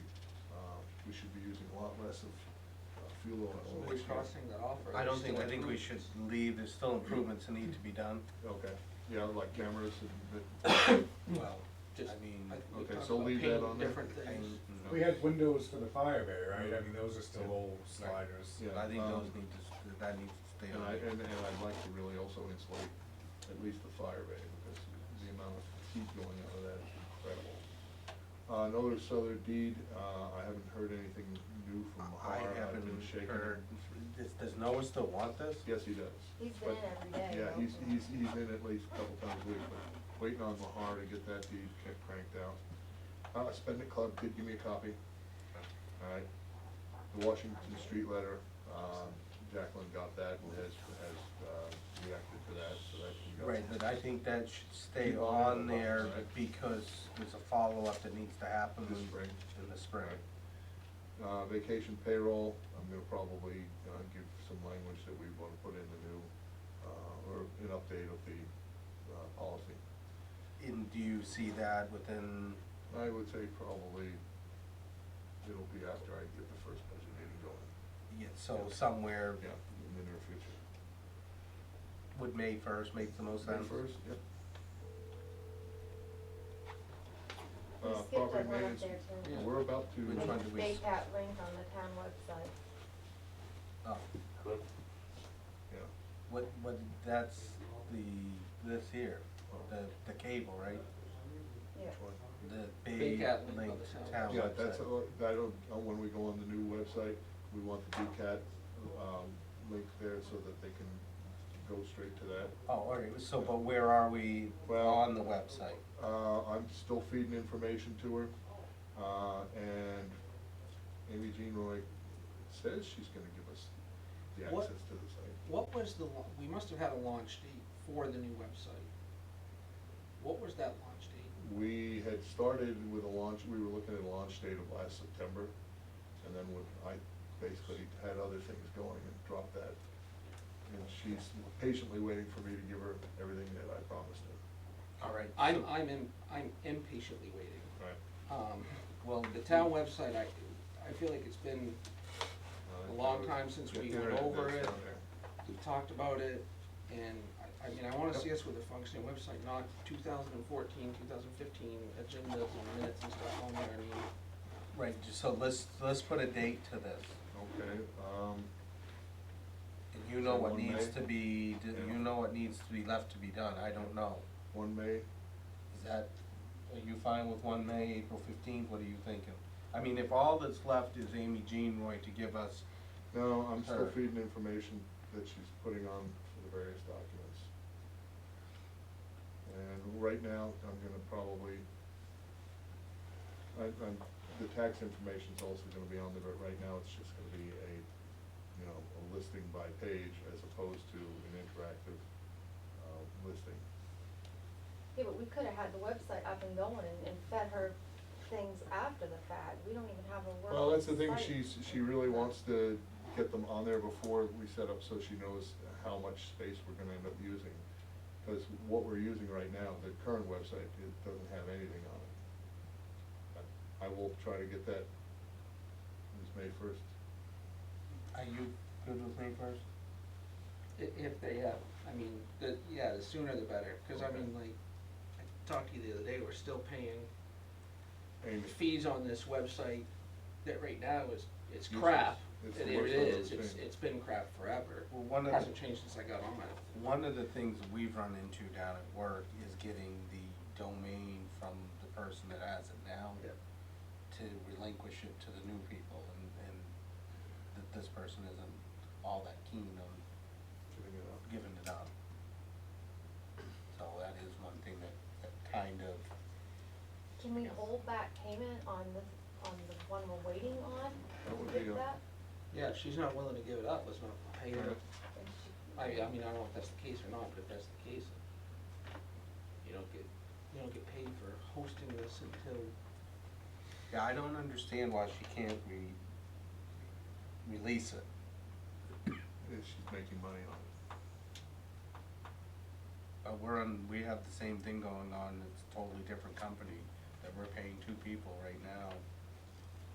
Um, we should be using a lot less of uh, fuel oil. Well, we're crossing that off. or I there's don't think, still I think we should improvements. leave, there's still improvements that need to be done. Okay, yeah, like cameras and, Well, just, I mean, I think we okay, talked so about leave that painting on there. Different things. Mm, We had windows for the fire bay, right? I mean, those are still old sliders. Yeah. I think um, those need to, s- that needs to stay and I, on. and, and I'd like to really also insulate at least the fire bay, because the amount of heat going out of that is incredible. Uh, another Souther deed, uh, I haven't heard anything new from Har, I I've uh, haven't been shaking. heard, does, does Noah still want this? Yes, he does. He's been But- in every day, Yeah, though. he's, he's, he's in at least a couple times a week, but waiting on Mahar to get that deed ca- cranked out. Uh, Spend It Club did give me a copy, alright. The Washington Street letter, um, Jacqueline got that and has, has, uh, reacted to that, so that can go. Right, but I think that should stay Keep on on the box, there right. because there's a follow-up that needs to happen This spring. in the spring. Uh, vacation payroll, I'm gonna probably, uh, give some language that we wanna put in the new, uh, or an update of the, uh, policy. And do you see that within, I would say probably it'll be after I get the first budget meeting going. yeah, so somewhere, Yeah, in the near future. would May first make the most May sense? first, yep. We Uh, skipped property that one up maintenance, there, too. we're about to. Which one do we, s- State that link on the town website. oh, Yeah, what, what, that's the, this here, Oh. the, the cable, right? Yeah. which one? The Big big Cat Link link on the to town town Yeah, that's, website. uh, I don't, uh, when we go on the new website, we want the DCAT, um, link there so that they can go straight to that. Oh, all right, so, but where are we Well- on the website? Uh, I'm still feeding information to her, uh, and Amy Jean Roy says she's gonna give us the What- access to the site. What was the, la- we must have had a launch date for the new website. What was that launch date? We had started with a launch, we were looking at a launch date of last September, and then when I basically had other things going and dropped that. And she's patiently waiting for me to give her everything that I promised her. All right. I'm, so- I'm, im- I'm impatiently waiting. Right. Um, Well, the town website, I, I feel like it's been, A long time since we went over it. we talked about it, and I, I mean, I wanna see us with a functioning website, not 2014, 2015 agendas and minutes and stuff on there, I mean, Right, ju- so let's, let's put a date to this, Okay, um, and you know So what one needs May? to be, d- Yeah. you know what needs to be left to be done, I don't know. one May, Is that, are you fine with one May, April fifteenth, what are you thinking? I mean, if all that's left is Amy Jean Roy to give us, No, I'm still Her. feeding information that she's putting on for the various documents. And right now, I'm gonna probably, I, I'm, the tax information's also gonna be on there, but right now, it's just gonna be a, you know, a listing by page as opposed to an interactive, uh, listing. Yeah, but we could have had the website up and going and, and fed her things after the fact. We don't even have a working Well, that's the thing, site. she's, she really wants to get them on there before we set up, so she knows how much space we're gonna end up using. Cause what we're using right now, the current website, it doesn't have anything on it. I I will try to get that, this May first. are you good with May first? I- If they have, I mean, the, yeah, the sooner the better, cause I Okay. mean, like, I talked to you the other day, we're still paying Amy, fees on this website that right now is, it's Useless. crap. It's It the it worst I've is, ever it's, seen. it's been crap forever. Well, one of the. Hasn't changed since I got on it. One of the things we've run into down at work is getting the domain from the person that has it now Yep. to relinquish it to the new people, and, and that this person isn't all that keen on giving it up. giving it up. So that is one thing that, that kind of, Can we hold back payment on the, on the one we're waiting on? That would to be get a- that? Yeah, if she's not willing to give it up, let's not pay her. And she- I, uh, I mean, I don't know if that's the case or not, but if that's the case, you don't get, you don't get paid for hosting this until yeah, I don't understand why she can't re, release it. Yeah, she's making money on it. Uh, we're on, we have the same thing going on, it's a totally different company, that we're paying two people right now